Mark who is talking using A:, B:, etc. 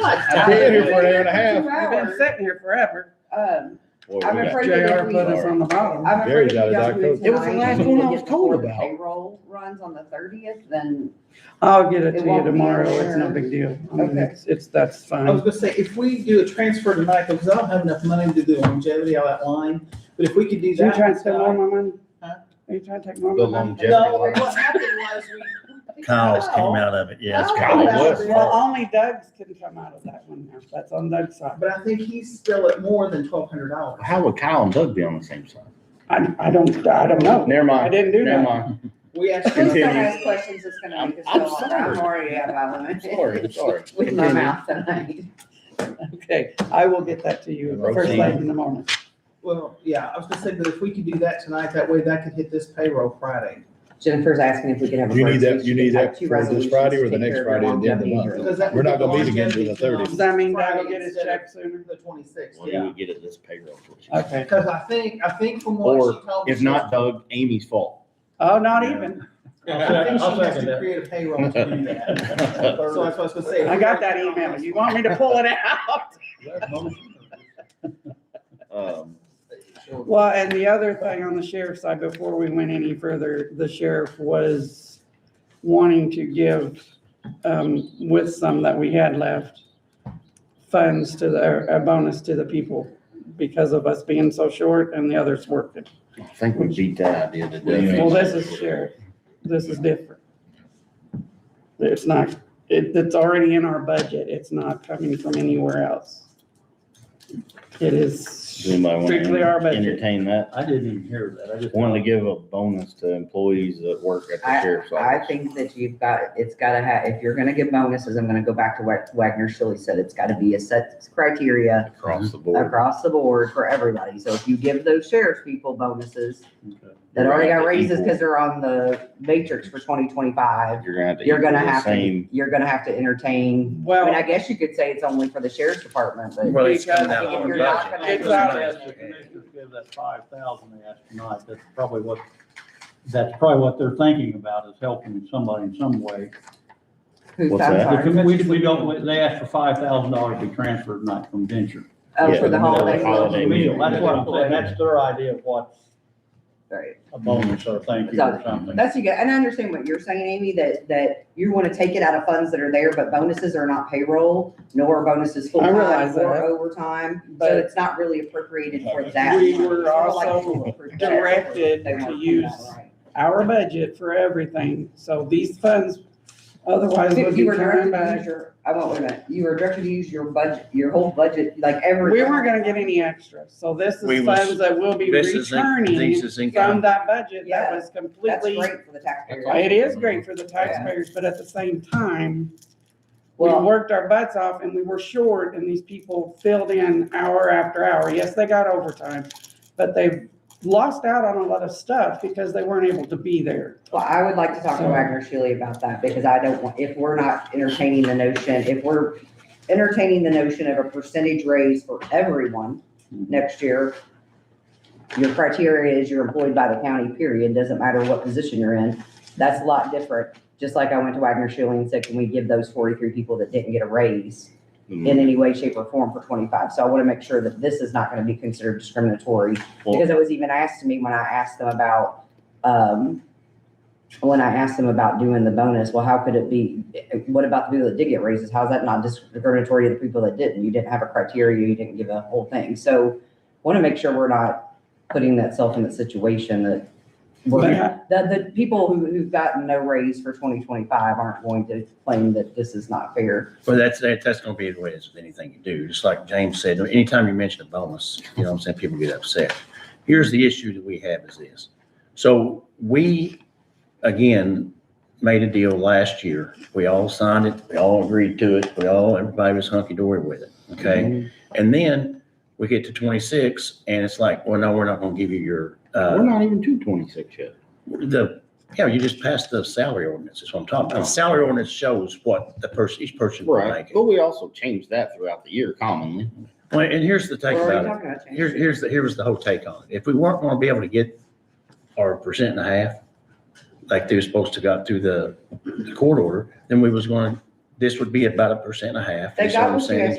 A: much
B: I've
A: time.
B: been here for an hour and a
A: Two
B: half.
C: We've been
A: hours.
C: sitting here forever.
A: Um,
B: Boy, we
A: I'm
B: got-
A: afraid
C: JR
A: that
C: put
A: we.
C: us on the bottom.
A: I'm afraid
B: Gary's
A: if
B: out
A: you
B: of
A: guys
B: Diet
A: do
B: Coke.
A: it
D: It was the
A: tonight,
D: last
A: and
D: one
A: we
D: I
A: get
D: was
A: the
D: told
A: board
D: about.
A: Payroll runs on the thirtieth, then
C: I'll get it to
A: It
C: you
A: won't be
C: tomorrow. It's no
A: insured.
C: big deal. I mean,
A: Okay.
C: It's, it's, that's
E: I was
C: fine.
E: gonna say, if we do a transfer tonight, because I don't have enough money to do longevity on that line, but if we could do
C: Are you
E: that. uh,
C: trying to steal more of my money?
E: Huh?
C: Are you trying to take more
F: The
C: of my money?
F: longevity
E: No,
F: line.
E: what happened was we.
F: Kyle's came out of it, yes.
A: Oh,
F: Kyle
A: that's
F: was.
A: good.
C: Well, only Doug's can come out of that one now. That's on Doug's side.
E: But I think he's still at more than twelve hundred dollars.
F: How would Kyle and Doug be on the same side?
C: I, I don't, I don't know.
F: Never
C: I
F: mind,
C: didn't do
F: never
C: that.
F: mind.
E: We
A: who's
E: actually,
A: gonna
F: Continue.
A: ask questions that's gonna
F: I'm-
A: make us
F: I'm
A: feel like I'm
F: sorry.
A: worried about them?
F: I'm sorry, I'm sorry.
A: With my
F: Continue.
A: mouth tonight.
C: Okay, I will get that to you first
F: Roseanne.
C: thing in the morning.
E: well, yeah, I was gonna say, but if we could do that tonight, that way that could hit this payroll Friday.
A: Jennifer's asking if we could have a.
B: Do you need
A: break.
B: that- you need that
A: Like two
B: for this
A: resolutions
B: Friday or the
A: to take
B: next
A: care of
B: Friday at the end of the
A: longevity
B: month?
A: group.
E: Because that
B: We're not
E: would be
B: gonna meet again till the
E: longevity
B: 30th.
C: Does that mean Doug will
E: Friday
C: get his
E: instead of
C: check sooner?
E: The twenty-sixth,
F: Well, he
E: yeah.
F: would get it this payroll.
C: Okay.
E: Because I think, I think from what
F: Or
E: she told me.
F: If not Doug, Amy's fault.
C: Oh, not even.
E: I think she
G: I'll
E: has
G: second
E: to
G: that.
E: create a payroll to do that.
F: Um,
E: So that's what I was gonna say.
C: I got that email. You want me to pull it out?
F: Um,
C: Well, and the other thing on the sheriff's side, before we went any further, the sheriff was wanting to give, um, with some that we had left, funds to the, or a bonus to the people because of us being so short and the others working.
F: I think we beat that idea to death.
C: Well, this is sheriff. This is different. It's not, it, it's already in our budget. It's not coming from anywhere else. It is
F: Does anybody want
C: strictly our
F: to
C: budget.
F: entertain that?
G: I didn't even hear that. I just.
F: Wanted to give a bonus to employees that work at the sheriff's
A: I
F: office.
A: think that you've got, it's gotta have, if you're gonna give bonuses, I'm gonna go back to what Wagner Shirley said, it's gotta be a set criteria
F: Across the board.
A: across the board for everybody. So if you give those sheriff's people bonuses that already got raises because they're on the matrix for twenty twenty-five,
F: You're gonna have to.
A: you're gonna
F: equal the
A: have to,
F: Same.
A: you're gonna have to entertain. I mean, I
C: Well,
A: guess you could say it's only for the sheriff's department, but.
C: Well, it's
A: because
C: coming out of
A: if
C: our
A: you're not
C: budget.
A: gonna-
C: Exactly.
G: Give that five thousand they asked tonight, that's probably what, that's probably what they're thinking about, is helping somebody in some way.
A: Who's
F: What's
A: I'm
F: that?
A: sorry.
G: We, we- we don't, they asked for five thousand dollars to be transferred, not from venture.
A: Oh,
F: Yeah,
A: for the
F: the middle of
A: holiday.
F: the holiday. meal.
G: That's what I'm saying, that's their idea of what
A: Right.
G: a bonus or thank you or something.
A: That's you get, and I understand what you're saying, Amy, that, that you want to take it out of funds that are there, but bonuses are not payroll, nor are bonuses
C: I
A: full-time
C: realize
A: or
C: that.
A: overtime. So
C: But-
A: it's not really appropriated for that.
C: We
A: money.
C: were
A: Sort of like
C: also
A: people for that.
C: directed
A: They want
C: to
A: come
C: use-
A: out right.
C: our budget for everything, so these funds otherwise would
A: If You
C: be
A: were
C: coming
A: directed to use
C: back.
A: your, I won't, wait a minute, you were directed to use your budget, your whole budget, like every.
C: We weren't gonna get any extra, so this
H: We
C: is
H: was-
C: funds that will be
H: This is, in- this
C: returning
H: is
C: from
H: income.
C: that budget that
A: Yeah,
C: was
A: That's
C: completely.
A: great for the taxpayer.
F: awesome.
C: It is great for the taxpayers, but at the same time, we
A: Well-
C: worked our butts off and we were short and these people filled in hour after hour. Yes, they got overtime, but they lost out on a lot of stuff because they weren't able to be there.
A: Well, I would like to talk to
C: So-
A: Wagner Shealy about that because I don't want, if we're not entertaining the notion, if we're entertaining the notion of a percentage raise for everyone next year, your criteria is you're employed by the county, period. Doesn't matter what position you're in. That's a lot different. Just like I went to Wagner Shealy and said, can we give those forty-three people that didn't get a raise in any way, shape or form for twenty-five? So I want to make sure that this is not going to be considered discriminatory because
F: Well,
A: it was even asked to me when I asked them about, um, when I asked them about doing the bonus, well, how could it be, what about the people that did get raises? How's that not discriminatory to the people that didn't? You didn't have a criteria, you didn't give a whole thing. So want to make sure we're not putting that self in that situation that
C: But
A: we're, that the people who, who've gotten no raise for twenty twenty-five aren't going to claim that this is not fair.
H: Well, that's, that- that's going to be the way it is with anything you do. Just like James said, anytime you mention a bonus, you know what I'm saying, people get upset. Here's the issue that we have is this. So we, again, made a deal last year. We all signed it, we all agreed to it, we all, everybody was hunky-dory with it, okay? And then we get to 26 and it's like, well, no, we're not going to give you your,
F: We're
H: uh,
F: not even to twenty-six yet.
H: the, yeah, you just passed the salary ordinance, is what I'm talking about. The salary ordinance shows what the person, each person will
F: Right,
H: make.
F: but we also change that throughout the year commonly.
H: Well, and here's the take
A: We're already
H: about it.
A: talking about change.
H: Here's, here's the, here was the whole take on it. If we weren't gonna be able to get our percent and a half, like they were supposed to got through the the court order, then we was gonna this would be about a percent and a half.
A: They
H: is what
A: got
H: I'm
A: what you
H: saying.
A: guys